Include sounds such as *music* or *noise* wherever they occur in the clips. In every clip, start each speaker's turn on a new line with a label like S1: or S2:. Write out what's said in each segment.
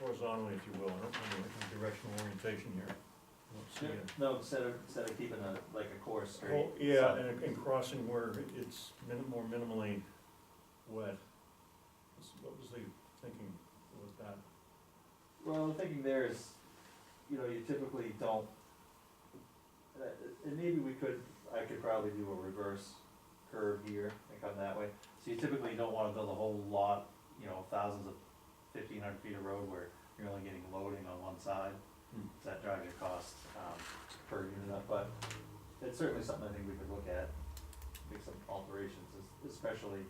S1: horizontally, if you will, in a- in a directional orientation here. Let's see it.
S2: No, instead of, instead of keeping a, like a course straight.
S1: Oh, yeah, and, and crossing where it's minim, more minimally wet. What's- What was the thinking with that?
S2: Well, I'm thinking there is, you know, you typically don't, uh, and maybe we could, I could probably do a reverse curve here and come that way. So you typically don't wanna build a whole lot, you know, thousands of, fifteen hundred feet of road where you're only getting loading on one side.
S1: Hmm.
S2: So that drives your cost, um, per unit up, but it's certainly something I think we could look at, make some alterations, es- especially,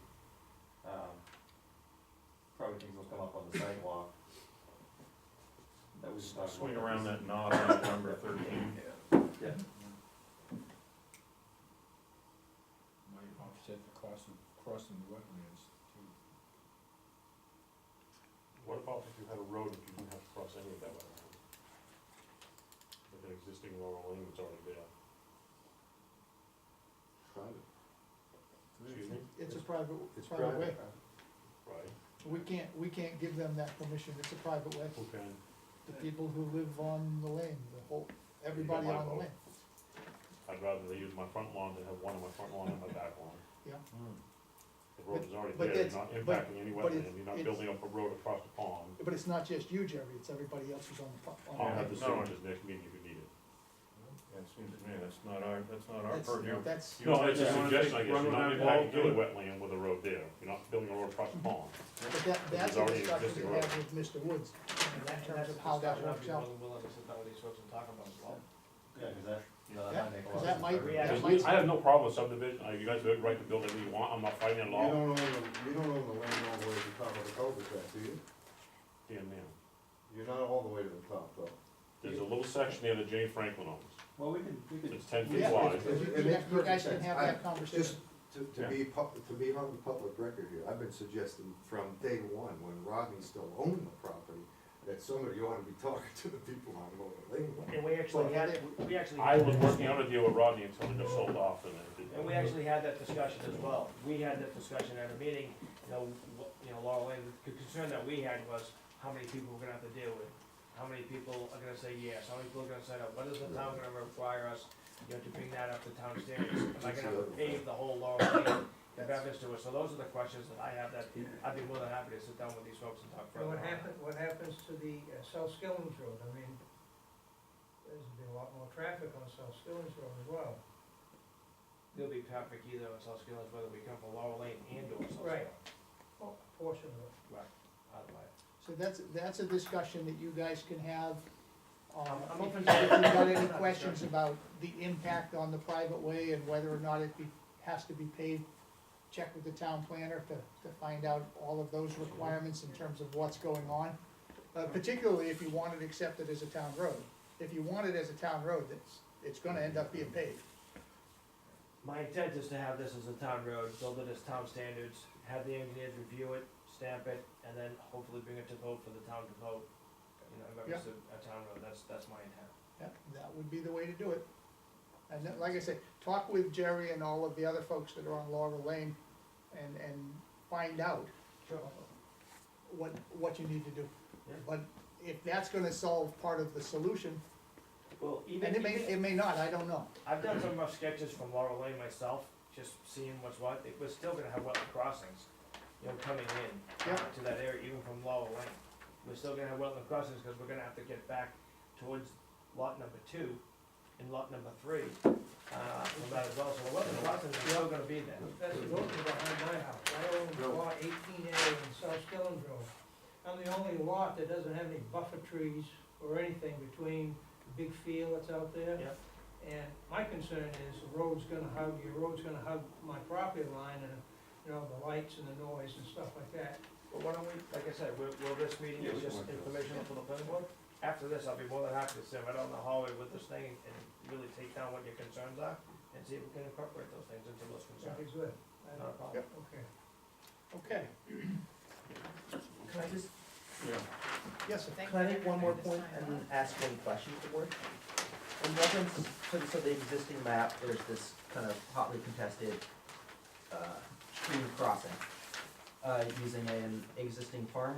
S2: um, probably things will come up on the sidewalk. That we should talk about.
S1: Swing around that knob on number thirteen.
S2: Yeah,
S3: Might offset the cost of crossing the wetlands too.
S4: What about if you had a road that you didn't have to cross any of that wetland? Like an existing lower lane that's already there. Private. Excuse me?
S5: It's a private,
S4: It's
S5: private way.
S4: Right.
S5: We can't, we can't give them that permission, it's a private way.
S4: Who can?
S5: The people who live on the lane, the whole, everybody on the lane.
S4: I'd rather they use my front lawn than have one on my front lawn and my back lawn.
S5: Yeah.
S4: The road is already
S5: But- but
S4: there,
S5: it's-
S4: you're not
S5: but-
S4: impacting any
S5: but
S4: wetland,
S5: it's-
S4: you're not
S5: it's-
S4: building up a road across the pond.
S5: But it's not just you, Jerry, it's everybody else who's on the, pro-
S4: I'll
S5: on
S4: have
S5: the
S4: the
S5: lane.
S4: signatures next meeting if you need it.
S1: Yeah, it seems to me that's not our, that's not our
S5: That's,
S1: purview.
S5: that's,
S4: You know, it's a
S1: Yeah.
S4: suggestion, I guess,
S1: Run
S4: you're not
S1: with that wall,
S4: impacting
S1: do
S4: any
S1: it.
S4: wetland with a road there, you're not building a road across the pond.
S5: but that, that's
S4: There's
S5: a
S4: already
S5: discussion
S4: existing
S5: we
S4: road.
S5: have with Mr. Woods, in terms of how that works out.
S2: yeah, cause that, you know, that
S5: Yeah,
S2: might make a lot of sense.
S5: 'cause that might-
S2: for
S5: that
S2: everybody.
S5: might-
S4: Because we- I have no problem with subdivision, Uh, you guys have the right to build anything you want, I'm not fighting it at
S6: You
S4: all,
S6: don't own, the- you don't own the land all the way to the top of the cul-de-sac, do you?
S4: damn man.
S6: You're not all the way to the top, though.
S4: There's a little section there that Jane Franklin owns,
S2: Well, we can, we can.
S4: it's ten feet
S5: Yeah,
S4: wide.
S5: you- you
S6: It
S5: guys- you
S6: makes
S5: guys can
S6: perfect
S5: have
S6: sense.
S5: that conversation.
S6: Just to, to be, pub- to be on the public record here, I've been suggesting from day one, when Rodney still owned the property, that somebody ought to be talking *laughs* to the people on Lower Lane.
S7: And we actually had, we actually.
S4: I was working out a deal with Rodney until it got sold off and it didn't.
S7: And we actually had that discussion as well. We had that discussion at a meeting, you know, wh- you know, Laurel Lane, the concern that we had was how many people we're gonna have to deal with. How many people are gonna say yes, how many people are gonna sign up, what is the town gonna require us, you know, to bring that up to town standards? Am I gonna have to pave the whole Laurel Lane in reference to it? So those are the questions that I have that, I'd be more than happy to sit down with these folks and talk
S8: And
S7: further.
S8: what
S7: on.
S8: happen, what happens to the uh, South Skilling's Road, I mean, there's been a lot more traffic on South Skilling's Road as well.
S7: There'll be traffic either on South Skilling, whether we come from Laurel Lane and or South
S8: Right.
S7: Skilling,
S8: Well, a portion of it.
S7: either way.
S5: So that's, that's a discussion that you guys can have. um,
S7: I'm- I'm open to-
S5: If you've got any questions about the impact on the private way and whether or not it be, has to be paved, check with the town planner to, to find out all of those requirements in terms of what's going on. Uh, particularly if you want it accepted as a town road. If you want it as a town road, it's, it's gonna end up being paved.
S7: My intent is to have this as a town road, build it as town standards, have the engineers review it, stamp it, and then hopefully bring it to vote for the town to vote. You know, remember, it's a, a town road, that's, that's my intent.
S5: Yeah, that would be the way to do it. And then, like I said, talk with Jerry and all of the other folks that are on Laurel Lane and, and find out
S7: Sure.
S5: what, what you need to do.
S7: Yeah.
S5: But if that's gonna solve part of the solution,
S7: Well,
S5: and
S7: even,
S5: it may,
S7: even,
S5: it may not, I don't know.
S7: I've done some rough sketches from Laurel Lane myself, just seeing what's what, it was still gonna have wetland crossings, you know, coming in
S5: Yeah.
S7: to that area, even from Laurel Lane. We're still gonna have wetland crossings, cause we're gonna have to get back towards lot number two and lot number three, uh, from that as well, so the wetland crossings are still gonna be there.
S8: That's the road behind my house, I own lot eighteen A on South Skilling's Road. I'm the only lot that doesn't have any buffer trees or anything between the big field that's out there.
S7: Yep.
S8: And my concern is the road's gonna hug, your road's gonna hug my property line and, you know, the lights and the noise and stuff like that.
S7: But why don't we, like I said, will, will this meeting
S6: Yeah,
S7: is
S6: we
S7: just
S6: want to.
S7: informational for the planning board? After this, I'll be more than happy to sit right on the hallway with this thing and- and really take down what your concerns are and see if we can incorporate those things into those concerns.
S8: It's good. I
S7: Not a
S8: don't-
S7: problem.
S5: Yep.
S8: Okay.
S5: Okay,
S9: Can I just,
S1: Yeah.
S5: yes, sir.
S9: can I make one more point and then ask one question to the board? In reference to the, so the existing map, there's this kind of hotly contested, uh, stream crossing, uh, using an existing farm